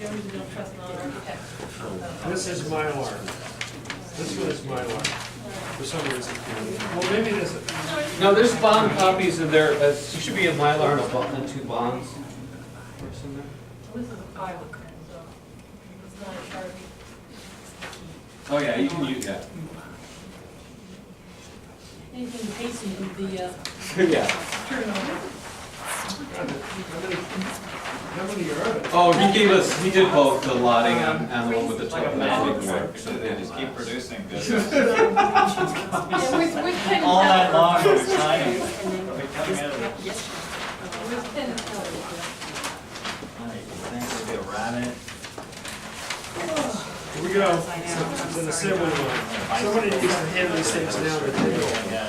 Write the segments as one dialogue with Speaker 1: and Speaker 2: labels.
Speaker 1: original trust non-architect.
Speaker 2: This is my alarm. This one is my alarm, for some reason. Well, maybe it isn't.
Speaker 3: No, there's bond copies in there, uh, it should be a Mylar and a bond, and two bonds. Or something.
Speaker 1: This is a pilot, so it's not a Sharpie.
Speaker 4: Oh, yeah, you can use that.
Speaker 1: Anything pacing with the uh,
Speaker 3: Yeah.
Speaker 1: turnover.
Speaker 2: God, How many- how many are there?
Speaker 3: Oh, he gave us, he did both the lotting and, and the one with the
Speaker 4: Like a
Speaker 3: top.
Speaker 4: magic trick, so they just keep producing this.
Speaker 1: Yeah, with, with pen.
Speaker 4: All night
Speaker 1: and
Speaker 4: long,
Speaker 1: paper.
Speaker 4: we're signing. We're coming out of it.
Speaker 1: Uh, With pen and paper.
Speaker 4: All right, thanks, we'll be around it.
Speaker 2: Here we go. It's an assembly line. Somebody needs to hand these things down to the
Speaker 4: Yeah,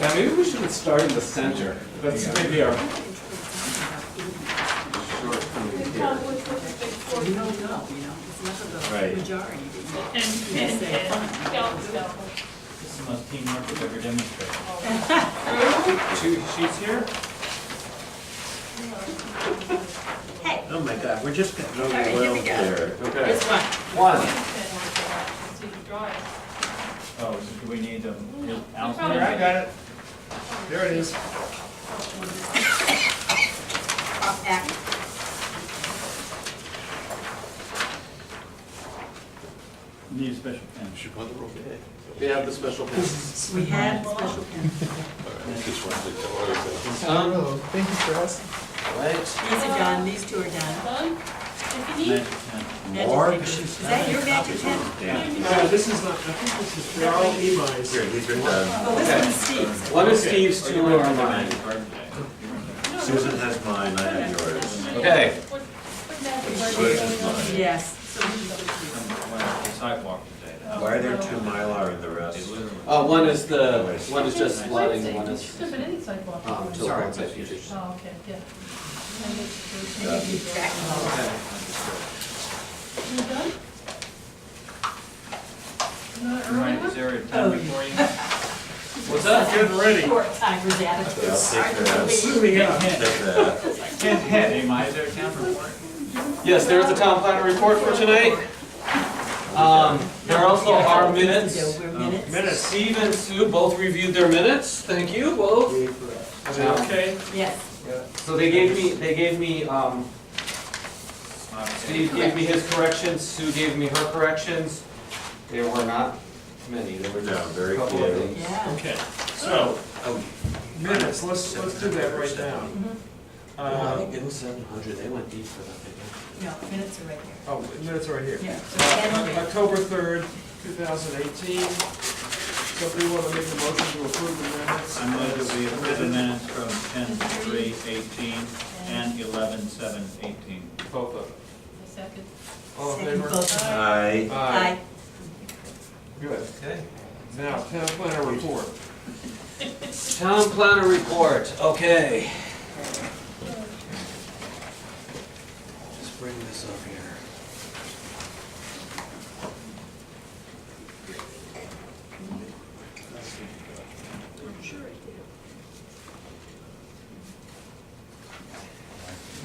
Speaker 3: Yeah, maybe we should start in the center. That's maybe our.
Speaker 1: And Tom, what's with the big four?
Speaker 5: You don't know, you know, it's never
Speaker 4: Right.
Speaker 5: the majority that
Speaker 1: And, and, and, scalp, scalp.
Speaker 4: This is the most teamwork we've ever demonstrated.
Speaker 3: Two sheets here?
Speaker 6: Oh my God, we're just getting
Speaker 5: right, here we
Speaker 6: overwhelmed
Speaker 5: go.
Speaker 6: here.
Speaker 5: you.
Speaker 3: Okay.
Speaker 5: It's fine.
Speaker 3: One.
Speaker 1: See the drawings.
Speaker 4: Oh, so do we need them?
Speaker 1: Probably.
Speaker 2: table. I got it. There it is.
Speaker 5: Up act.
Speaker 4: Need a special pen.
Speaker 6: Should want the roll big.
Speaker 3: We have the special pins.
Speaker 5: We had special pen.
Speaker 6: Just wanted to tell everybody.
Speaker 3: Um,
Speaker 6: What?
Speaker 5: These are done, these two are done.
Speaker 1: Done? If you need,
Speaker 4: Magic pen.
Speaker 5: Magic
Speaker 6: More?
Speaker 5: pen. Is that your magic pen?
Speaker 6: Yeah.
Speaker 2: No, Uh, this is not, I think this is, they're all
Speaker 6: Here,
Speaker 2: Emi's.
Speaker 6: these are done.
Speaker 5: Well, Oh, this one's Steve's.
Speaker 3: one is Steve's,
Speaker 4: Oh, you
Speaker 3: two
Speaker 4: were on
Speaker 3: are
Speaker 4: the
Speaker 3: mine.
Speaker 4: magic card today. You were on the-
Speaker 6: Susan has mine, I have yours.
Speaker 3: Okay.
Speaker 1: what, what magic are
Speaker 6: Sure,
Speaker 1: you
Speaker 6: it's
Speaker 1: going on?
Speaker 6: fine.
Speaker 5: Yes.
Speaker 4: Went on the Sidewalk today. That
Speaker 6: Why
Speaker 4: was-
Speaker 6: are there two Mylar in the
Speaker 4: they
Speaker 6: rest?
Speaker 4: literally-
Speaker 3: Uh, one is the, one is just
Speaker 1: Wait a
Speaker 3: lotting,
Speaker 1: second,
Speaker 3: one
Speaker 1: It
Speaker 3: is.
Speaker 1: should have been any sidewalk.
Speaker 3: Um, till
Speaker 4: Sorry.
Speaker 3: one features.
Speaker 1: Oh, okay, yeah.
Speaker 6: Done.
Speaker 1: And it's-
Speaker 5: Back.
Speaker 1: You done? Not
Speaker 4: Right,
Speaker 1: early
Speaker 4: is there a
Speaker 5: Oh,
Speaker 4: pen before you?
Speaker 3: What's up?
Speaker 2: Getting ready.
Speaker 5: Short timers attitude.
Speaker 6: Yeah, I'll take that.
Speaker 2: Moving up.
Speaker 6: Take that.
Speaker 4: Ken, hey, am I there town report?
Speaker 3: Yes, there's the town planner report for tonight. Um, there also are minutes.
Speaker 5: We're minutes.
Speaker 2: Minutes.
Speaker 3: Steve and Sue both reviewed their minutes, thank you, both.
Speaker 2: Is it okay?
Speaker 5: Yes.
Speaker 3: So they gave me, they gave me, um, Steve gave me his corrections, Sue gave me her corrections. There were not many, there were
Speaker 6: No,
Speaker 3: just a
Speaker 6: very
Speaker 3: couple of
Speaker 6: few.
Speaker 3: things.
Speaker 5: Yeah.
Speaker 2: Okay, so,
Speaker 6: Oh,
Speaker 2: minutes, let's, let's do that right now.
Speaker 6: I
Speaker 2: Uh,
Speaker 6: think it was seven hundred, they went deep for that, didn't they?
Speaker 5: No, minutes are right here.
Speaker 2: oh, minutes are right here.
Speaker 5: Yeah. So
Speaker 2: Uh,
Speaker 5: Henry,
Speaker 2: October 3rd, 2018. Somebody want to make a motion to approve the minutes?
Speaker 4: I move that we approve the minutes from ten three eighteen and eleven seven eighteen.
Speaker 2: Both of them.
Speaker 1: A second.
Speaker 2: All in
Speaker 5: second
Speaker 2: favor?
Speaker 5: vote.
Speaker 6: I,
Speaker 5: Aye.
Speaker 2: Good. Now, town planner report.
Speaker 3: Town planner report, okay. Just bring this up here.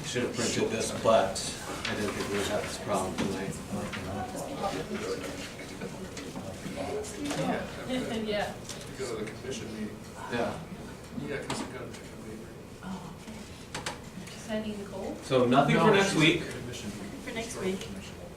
Speaker 3: Should have printed this, but I didn't think we would have this problem tonight.
Speaker 1: Yeah.
Speaker 7: go to the commission meeting.
Speaker 3: Yeah.
Speaker 7: Yeah, because you gotta pick a meeting.
Speaker 1: Sending Nicole.
Speaker 3: So nothing for
Speaker 2: No,
Speaker 3: next
Speaker 2: she's-
Speaker 3: week.
Speaker 7: Commission meeting.
Speaker 5: For next week.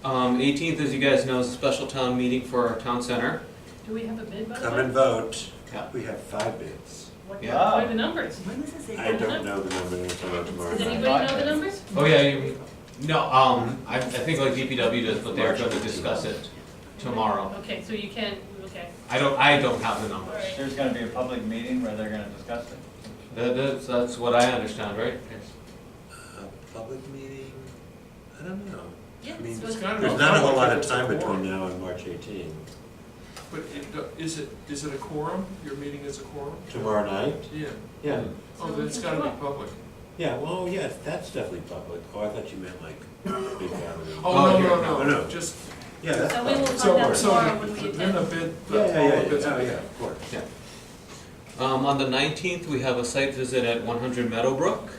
Speaker 3: Um, 18th, as you guys know, is a special town meeting for our town center.
Speaker 1: Do we have a bid by the
Speaker 6: come and
Speaker 1: way?
Speaker 6: vote.
Speaker 3: Yeah.
Speaker 6: We have five bids.
Speaker 1: What
Speaker 3: Yeah.
Speaker 1: what are the numbers?
Speaker 5: When was this?
Speaker 6: I don't know the number until tomorrow
Speaker 1: Does anybody
Speaker 6: night.
Speaker 1: know the numbers?
Speaker 3: Oh, yeah, you, no, um, I, I think like DPW does, but they're gonna discuss it tomorrow.
Speaker 1: Okay, so you can, okay.
Speaker 3: I don't, I don't have the
Speaker 1: All
Speaker 3: numbers.
Speaker 1: right.
Speaker 4: There's gonna be a public meeting where they're gonna discuss it.
Speaker 3: That, that's, that's what I understand, right?
Speaker 6: A Public meeting? I don't know.
Speaker 1: Yeah,
Speaker 6: I mean,
Speaker 1: so
Speaker 6: it's
Speaker 1: it's-
Speaker 2: gotta be-
Speaker 6: There's not a whole lot of time between now and March 18.
Speaker 2: But it- is it, is it a quorum? Your meeting is a quorum?
Speaker 6: Tomorrow night?
Speaker 2: Yeah.
Speaker 6: Yeah.
Speaker 2: Oh, then it's gotta be public.
Speaker 6: Yeah, well, yes, that's definitely public. Oh, I thought you meant like big gathering.
Speaker 2: Oh,
Speaker 3: Oh,
Speaker 2: no,
Speaker 3: here.
Speaker 2: no,
Speaker 6: No,
Speaker 2: no,
Speaker 6: no.
Speaker 2: just,
Speaker 6: Yeah, that's
Speaker 1: So we will
Speaker 6: public.
Speaker 1: find
Speaker 2: so,
Speaker 1: out
Speaker 2: so,
Speaker 1: tomorrow when we
Speaker 2: then the
Speaker 1: attend.
Speaker 2: bid,
Speaker 6: Yeah,
Speaker 2: the-
Speaker 6: yeah,
Speaker 2: all
Speaker 6: yeah,
Speaker 2: the bids.
Speaker 6: yeah,
Speaker 2: are-
Speaker 6: oh, yeah, of course.
Speaker 3: Um, on the nineteenth, we have a site visit at one hundred Meadowbrook.